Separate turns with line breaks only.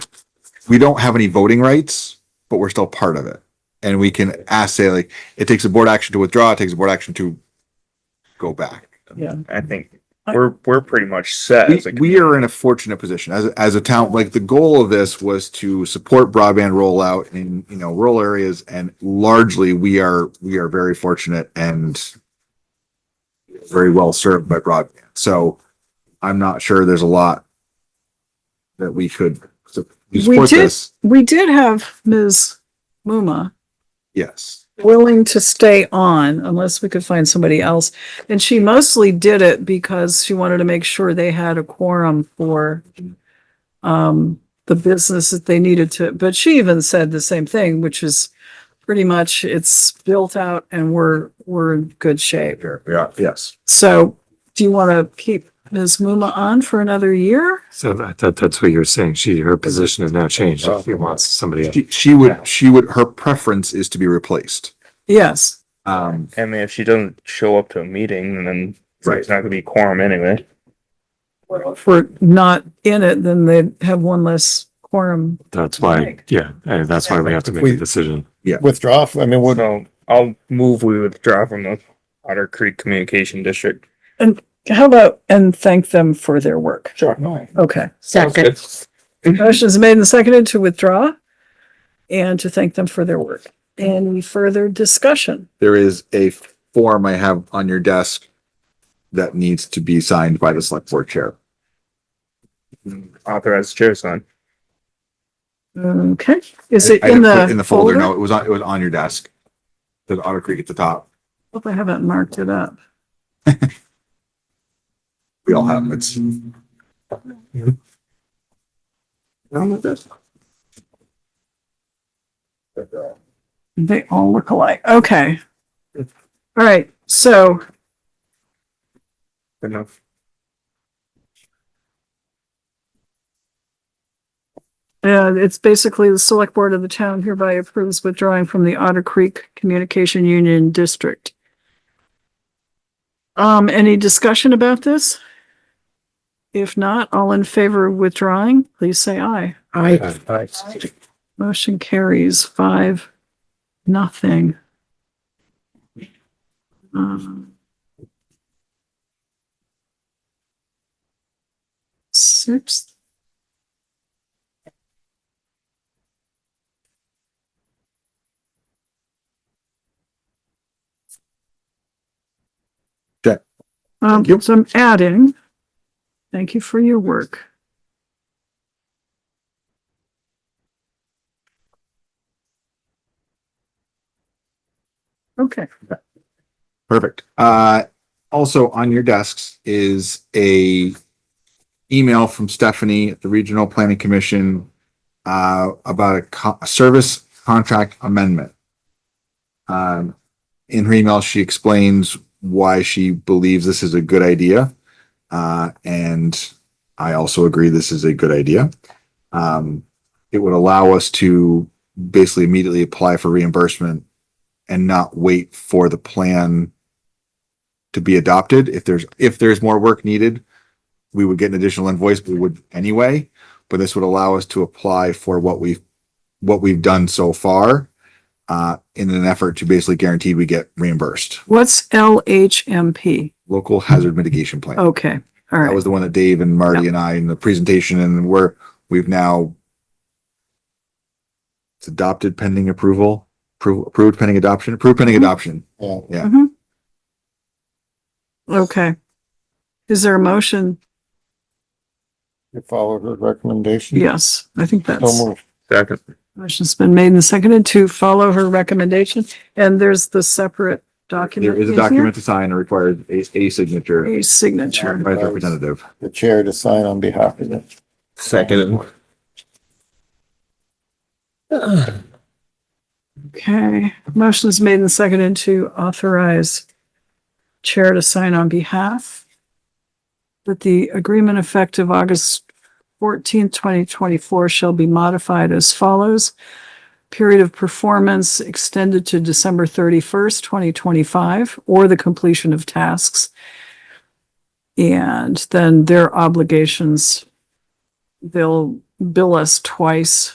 we don't have any voting rights, but we're still part of it. And we can ask, say like, it takes a board action to withdraw, it takes a board action to go back.
Yeah.
I think
I-
we're, we're pretty much set.
We,
as a
we are in a fortunate position as, a- as a town, like the goal of this was to support broadband rollout in, you know, rural areas and largely we are, we are very fortunate and very well served by broadband. So I'm not sure there's a lot that we could su-
We
support
did-
this.
We did have Ms. Muma
Yes.
willing to stay on unless we could find somebody else. And she mostly did it because she wanted to make sure they had a quorum for um, the business that they needed to, but she even said the same thing, which is pretty much it's built out and we're, we're in good shape.
Yeah. Yes.
So do you want to keep Ms. Muma on for another year?
So I thought that's what you were saying. She, her position has now changed. She wants somebody. else.
She, she would, she would, her preference is to be replaced.
Yes.
Um,
I mean, if she doesn't show up to a meeting, then
Right.
it's not gonna be quorum anyway.
if we're not in it, then they'd have one less quorum.
That's why, yeah, and that's why we have to make a
We-
decision.
withdraw. I mean, would,
So I'll move, we withdraw from the Otter Creek Communication District.
How about, and thank them for their work.
Sure.
Okay.
Second.
Motion is made and seconded to withdraw and to thank them for their work. Any further discussion?
there is a form I have on your desk that needs to be signed by the select board chair.
Authorized chair sign.
Okay, is it
I didn't
in
put it
the?
In the folder, no, it was on, it was on your desk. The Otter Creek at the top,
Hope I haven't marked it up.
we all have, it's.
They all look alike. Okay. All right, so
Good Enough.
Uh, it's basically the select board of the town hereby approves withdrawing from the Otter Creek Communication Union District. Um, any discussion about this? If not, all in favor of withdrawing, please say aye.
I
Motion carries five, nothing. Um, Sixth.
Okay.
Um,
Thank you.
so I'm adding, thank you for your work. Okay.
Perfect. Uh, also on your desks is a email from Stephanie at the Regional Planning Commission uh, about a co- a service contract amendment. Um, in her email, she explains why she believes this is a good idea. Uh, and I also agree this is a good idea. Um, it would allow us to basically immediately apply for reimbursement and not wait for the plan to be adopted. If there's, if there's more work needed, we would get an additional invoice, but we would anyway. But this would allow us to apply for what we've, what we've done so far uh, in an effort to basically guarantee we get reimbursed.
What's LHMP?
Local hazard mitigation plan.
Okay, all
That
Oh, right.
was the one that Dave and Marty and I in the presentation and we're, we've now it's adopted pending approval, approved, approved pending adoption, approved pending adoption.
yeah,
yeah.
Mhm. Okay. Is there a motion?
Mm-hmm.
you follow the recommendation.
Yes, I think that's,
So moved.
Second.
motion's been made and seconded to follow her recommendation. And there's the separate document.
There is a
in here?
document to sign and requires a, a signature
A signature.
by the representative.
The chair to sign on behalf of the
Second.
Okay, motion is made and seconded to authorize chair to sign on behalf that the agreement effective August fourteenth, twenty twenty-four shall be modified as follows. Period of performance extended to December thirty-first, twenty twenty-five, or the completion of tasks. And then their obligations, they'll bill us twice